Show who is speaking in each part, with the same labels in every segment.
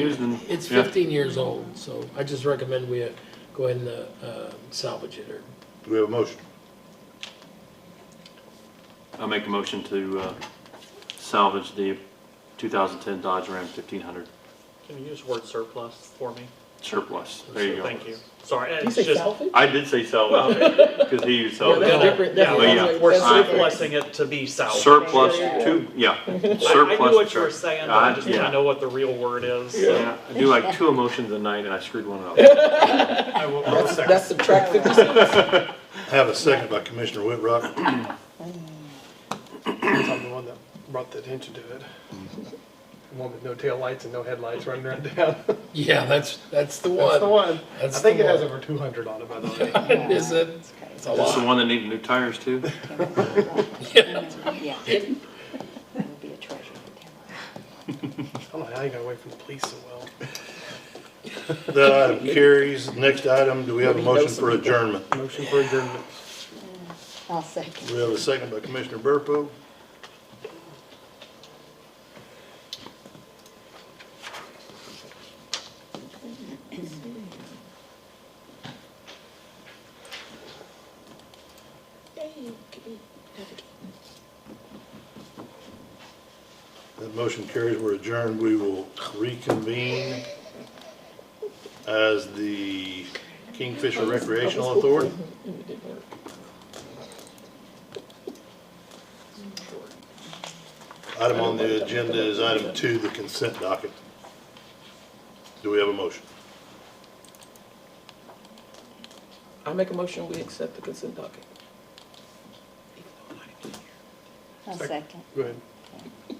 Speaker 1: used and.
Speaker 2: It's
Speaker 1: yeah.
Speaker 2: 15 years old, so I just recommend we uh, go ahead and uh, uh, salvage it or
Speaker 3: Do we have a motion?
Speaker 1: I make a motion to uh, salvage the 2010 Dodge Ram 1500
Speaker 4: Can you use word surplus for me?
Speaker 1: surplus. There you go.
Speaker 4: Thank you. Sorry,
Speaker 2: You
Speaker 4: it's
Speaker 2: say
Speaker 4: just. Oh,
Speaker 2: salvage?
Speaker 1: I did say salvage, because he used
Speaker 2: Yeah, that's
Speaker 1: salvage.
Speaker 2: different- that's-
Speaker 1: Well, yeah.
Speaker 2: that's-
Speaker 4: We're
Speaker 2: that's different.
Speaker 4: surplusing it to be salvaged.
Speaker 1: Surplus to, yeah, surplus.
Speaker 4: I- I knew what you were
Speaker 1: to-
Speaker 4: saying, but I
Speaker 1: Uh,
Speaker 4: just want
Speaker 1: yeah.
Speaker 4: to know what the real word is. so
Speaker 1: Yeah, I do like two emotions a night and I screwed one up.
Speaker 4: I will, I'll second.
Speaker 2: That's subtract 56.
Speaker 3: I have a second by Commissioner Whitrock.
Speaker 5: I'm the one that brought the attention to it. The one with no taillights and no headlights running around town.
Speaker 2: Yeah, that's, that's the
Speaker 5: That's the
Speaker 2: one.
Speaker 5: one. I
Speaker 2: That's
Speaker 5: think
Speaker 2: the
Speaker 5: it has
Speaker 2: one.
Speaker 5: over two hundred on it, by the way.
Speaker 2: Is it? It's a
Speaker 1: That's the
Speaker 2: lot.
Speaker 1: one that needed new tires too.
Speaker 6: Yeah. It would be a treasure.
Speaker 5: I don't know how you got away from the police so well.
Speaker 3: That item carries. Next item, do we have a motion for adjournment?
Speaker 5: Motion for adjournment.
Speaker 6: I'll second.
Speaker 3: We have a second by Commissioner Burpo. That motion carries. We're adjourned. We will reconvene as the Kingfisher Recreational Authority. Item on the agenda is item two, the consent docket. Do we have a motion?
Speaker 7: I make a motion, we accept the consent docket.
Speaker 6: I'll second.
Speaker 5: Go ahead.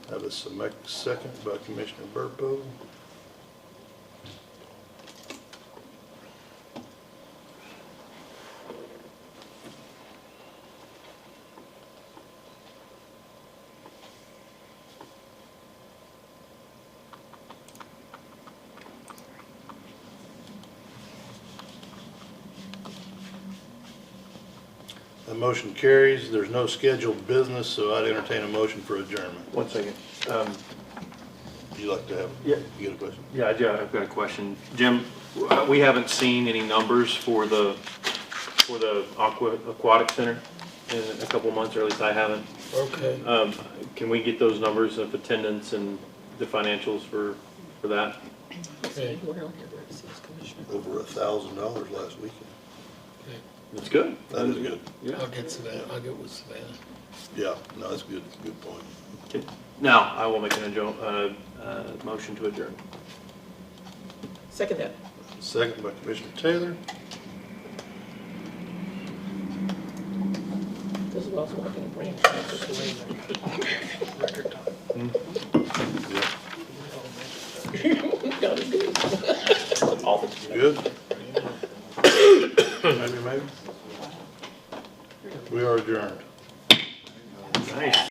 Speaker 3: Have a sec- second by Commissioner Burpo. The motion carries. There's no scheduled business, so I'd entertain a motion for adjournment.
Speaker 1: One second. Um,
Speaker 3: Would you like to have?
Speaker 1: Yeah.
Speaker 3: You got a question?
Speaker 1: Yeah, I do. I've got a question. Jim, uh, we haven't seen any numbers for the, for the aqua, aquatic center in a couple of months, or at least I haven't.
Speaker 2: Okay.
Speaker 1: Um, can we get those numbers of attendance and the financials for, for that?
Speaker 2: Okay.
Speaker 7: Anywhere on here where it says Commissioner.
Speaker 3: Over a thousand dollars last weekend.
Speaker 1: That's good.
Speaker 3: That is good.
Speaker 1: Yeah.
Speaker 2: I'll get Savannah, I'll get with Savannah.
Speaker 3: Yeah, no, that's a good, good point.
Speaker 1: Okay. Now, I will make an adjo, uh, uh, motion to adjourn.
Speaker 7: Second that.
Speaker 3: Second by Commissioner Taylor.
Speaker 7: This is what I was walking in Brandon.
Speaker 5: Record time.
Speaker 3: Yeah,
Speaker 7: Got it good.
Speaker 3: good. Maybe, maybe. We are adjourned.
Speaker 1: Nice.